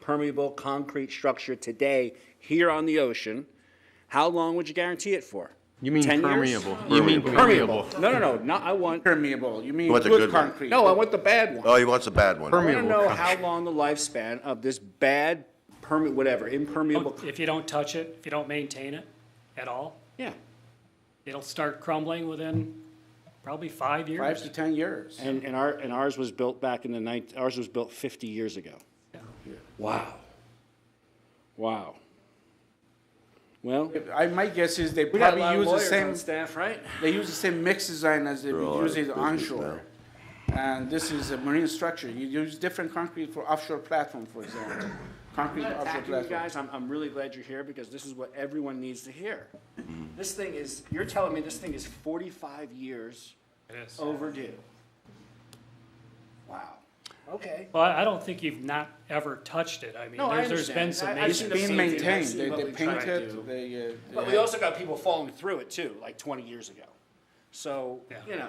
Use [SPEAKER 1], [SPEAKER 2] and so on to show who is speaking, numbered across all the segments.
[SPEAKER 1] permeable concrete structure today here on the ocean, how long would you guarantee it for?
[SPEAKER 2] You mean
[SPEAKER 1] 10 years?
[SPEAKER 2] permeable.
[SPEAKER 3] You mean
[SPEAKER 1] Permeable. No, no, no, not, I want,
[SPEAKER 3] Permeable, you mean
[SPEAKER 4] What's a
[SPEAKER 3] good
[SPEAKER 4] good one?
[SPEAKER 3] concrete?
[SPEAKER 1] no, I want the bad one.
[SPEAKER 4] Oh, he wants a bad one.
[SPEAKER 1] I want to
[SPEAKER 2] Permeable
[SPEAKER 1] know
[SPEAKER 2] concrete.
[SPEAKER 1] how long the lifespan of this bad perme, whatever, impermeable,
[SPEAKER 5] If you don't touch it, if you don't maintain it at all,
[SPEAKER 1] yeah.
[SPEAKER 5] it'll start crumbling within probably five
[SPEAKER 3] Five
[SPEAKER 5] years.
[SPEAKER 3] to 10 years.
[SPEAKER 1] And, and our, and ours was built back in the nine, ours was built fifty years ago.
[SPEAKER 5] Yeah.
[SPEAKER 1] Wow. Wow. Well,
[SPEAKER 3] I, my guess is they
[SPEAKER 1] we got a
[SPEAKER 3] probably
[SPEAKER 1] lot of
[SPEAKER 3] use the
[SPEAKER 1] lawyers
[SPEAKER 3] same,
[SPEAKER 1] on staff, right?
[SPEAKER 3] they use the same mix design as they
[SPEAKER 4] all
[SPEAKER 3] use
[SPEAKER 4] out of
[SPEAKER 3] it
[SPEAKER 4] business
[SPEAKER 3] onshore. And this is a marine structure. You use different concrete for offshore platform, for example. Concrete
[SPEAKER 1] I'm not
[SPEAKER 3] offshore
[SPEAKER 1] attacking you
[SPEAKER 3] platform.
[SPEAKER 1] guys. I'm, I'm really glad you're here because this is what everyone needs to hear. This thing is, you're telling me this thing is 45 years
[SPEAKER 5] It is.
[SPEAKER 1] overdue. Wow. Okay.
[SPEAKER 5] Well, I I don't think you've not ever touched it. I mean,
[SPEAKER 1] No, I
[SPEAKER 5] there's, there's been
[SPEAKER 1] understand.
[SPEAKER 5] some
[SPEAKER 1] I- I've
[SPEAKER 3] It's
[SPEAKER 1] seen
[SPEAKER 5] masons.
[SPEAKER 1] the
[SPEAKER 3] being
[SPEAKER 1] painting, I've
[SPEAKER 3] maintained.
[SPEAKER 1] seen
[SPEAKER 3] They,
[SPEAKER 1] what
[SPEAKER 3] they
[SPEAKER 1] we tried
[SPEAKER 3] paint
[SPEAKER 1] to do.
[SPEAKER 3] it, they, uh.
[SPEAKER 1] But
[SPEAKER 3] they-
[SPEAKER 1] we also got people following through it too, like 20 years ago. So,
[SPEAKER 5] Yeah.
[SPEAKER 1] you know.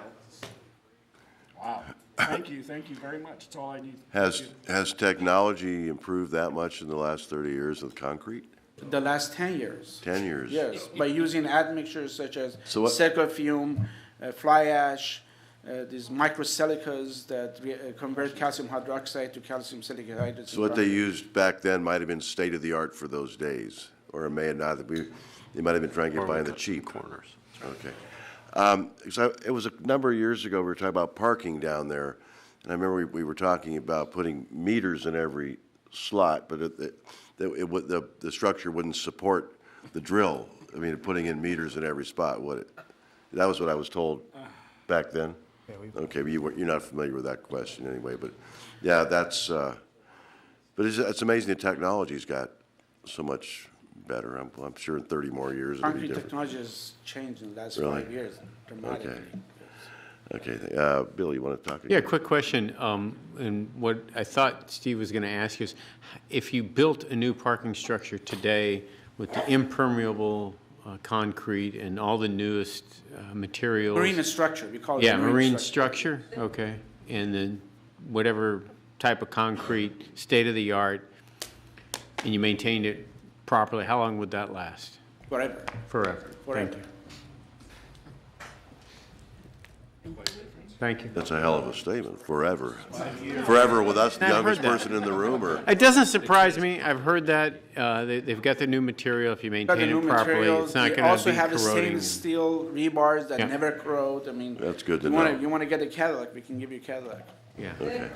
[SPEAKER 1] Wow. Thank you, thank you very much. That's all I need.
[SPEAKER 4] Has, has technology improved that much in the last 30 years with concrete?
[SPEAKER 3] The last ten years.
[SPEAKER 4] 10 years?
[SPEAKER 3] Yes, by using admixtures such as
[SPEAKER 4] So what-
[SPEAKER 3] silicofume, uh, fly ash, uh, these microsilicas that re- uh, convert calcium hydroxide to calcium silicate hydride.
[SPEAKER 4] So what they used back then might have been state of the art for those days, or it may have not, have been- they might have been trying to get by on the cheap. Corners. Okay. Um, So it was a number of years ago, we were talking about parking down there, and I remember we, we were talking about putting meters in every slot, but it, it- that it, would- the, the structure wouldn't support the drill. I mean, putting in meters in every spot, would it? That was what I was told back then? Okay, but you weren't, you're not familiar with that question anyway, but, yeah, that's, uh, but it's, it's amazing the technology's got so much better. I'm, I'm sure in 30 more years it'll be
[SPEAKER 3] Concrete
[SPEAKER 4] different.
[SPEAKER 3] technology has changed in the last
[SPEAKER 4] Really?
[SPEAKER 3] five years dramatically.
[SPEAKER 4] Okay, th- uh, Bill, you want to talk?
[SPEAKER 2] Yeah, quick question, um, and what I thought Steve was gonna ask is, if you built a new parking structure today with the impermeable, uh, concrete and all the newest, uh, materials.
[SPEAKER 3] Marine structure, we call it.
[SPEAKER 2] Yeah, marine structure, okay, and then whatever type of concrete, state-of-the-art, and you maintained it properly, how long would that last?
[SPEAKER 3] Whatever.
[SPEAKER 2] Forever, thank
[SPEAKER 3] Forever.
[SPEAKER 2] you. Thank you.
[SPEAKER 4] That's a hell of a statement, forever. Forever with us, the
[SPEAKER 2] I've
[SPEAKER 4] youngest
[SPEAKER 2] heard that.
[SPEAKER 4] person in the room, or?
[SPEAKER 2] It doesn't surprise me, I've heard that, uh, they, they've got the new material, if you
[SPEAKER 3] Got the
[SPEAKER 2] maintain
[SPEAKER 3] new
[SPEAKER 2] it properly,
[SPEAKER 3] materials.
[SPEAKER 2] it's not
[SPEAKER 3] They
[SPEAKER 2] gonna
[SPEAKER 3] also
[SPEAKER 2] be
[SPEAKER 3] have the
[SPEAKER 2] corroding.
[SPEAKER 3] stainless steel rebars
[SPEAKER 2] Yeah.
[SPEAKER 3] that never corrode, I mean.
[SPEAKER 4] That's good to
[SPEAKER 3] you wanna-
[SPEAKER 4] know.
[SPEAKER 3] You want to get a Cadillac, we can give you a Cadillac.
[SPEAKER 2] Yeah.
[SPEAKER 4] Okay,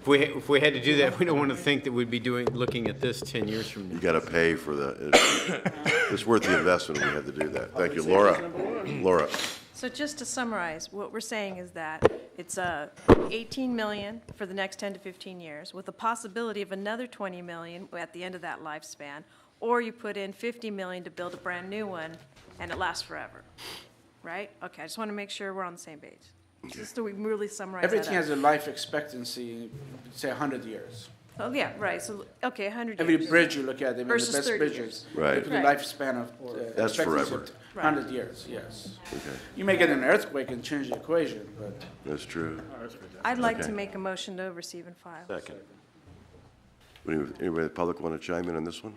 [SPEAKER 2] If we, if we had to do that, we don't wanna think that we'd be doing, looking at this ten years from now.
[SPEAKER 4] you got to pay for the, it's- it's worth the investment, we had to do that. Thank you, Laura. Laura,
[SPEAKER 6] So just to summarize, what we're saying is that it's uh, 18 million for the next 10 to 15 years, with the possibility of another 20 million at the end of that lifespan, or you put in 50 million to build a brand-new one, and it lasts forever, right? Okay, I just want to make sure we're on the same page, just so we really summarize that
[SPEAKER 3] Everything
[SPEAKER 6] up.
[SPEAKER 3] has a life expectancy, say hundred years.
[SPEAKER 6] Oh, yeah, right, so, okay, 100 years.
[SPEAKER 3] Every bridge you look at, even the
[SPEAKER 6] Versus
[SPEAKER 3] best
[SPEAKER 6] 30
[SPEAKER 3] bridges.
[SPEAKER 4] Right.
[SPEAKER 3] Look at the
[SPEAKER 6] Right.
[SPEAKER 3] lifespan of. uh,
[SPEAKER 4] That's
[SPEAKER 3] expectancy of
[SPEAKER 4] forever.
[SPEAKER 6] Right.
[SPEAKER 3] 100 years, yes.
[SPEAKER 4] okay,
[SPEAKER 3] You may get an earthquake and change the equation, but.
[SPEAKER 4] that's true.
[SPEAKER 6] I'd like
[SPEAKER 4] Okay.
[SPEAKER 6] to make a motion to receive and file.
[SPEAKER 4] Anybody in the public want to chime in on this one?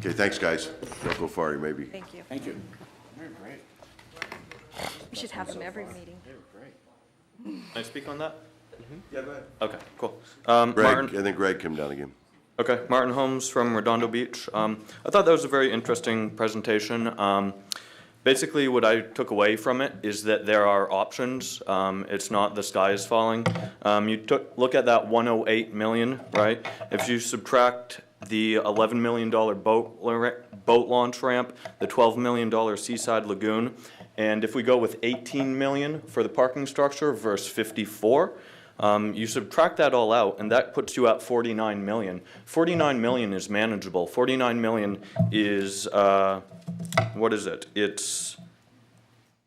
[SPEAKER 4] Okay, thanks, guys. Don't go far, you may be.
[SPEAKER 6] Thank you.
[SPEAKER 3] Thank you.
[SPEAKER 6] We should have them every meeting.
[SPEAKER 7] Can I speak on that? Yeah, go ahead. Okay, cool. Um,
[SPEAKER 4] Greg,
[SPEAKER 7] Martin,
[SPEAKER 4] and then Greg came down again.
[SPEAKER 7] okay, Martin Holmes from Redondo Beach. Um, I thought that was a very interesting presentation. Um, basically, what I took away from it is that there are options. Um, it's not the sky is falling. Um, you took, look at that one oh eight million, right? If you subtract the eleven million dollar boat, la- boat launch ramp, the twelve million dollar seaside lagoon, and if we go with eighteen million for the parking structure versus fifty-four, Um, you subtract that all out, and that puts you at 49 million. 49 million is manageable. 49 million is, uh, what is it? It's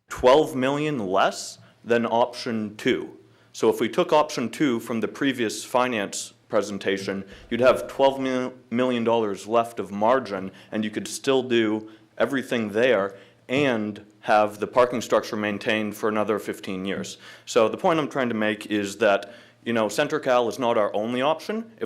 [SPEAKER 7] 12 million less than option two. So if we took option two from the previous finance presentation, you'd have 12 mil- million dollars left of margin, and you could still do everything there and have the parking structure maintained for another 15 years. So the point I'm trying to make is that, you know, Centrical is not our only option. If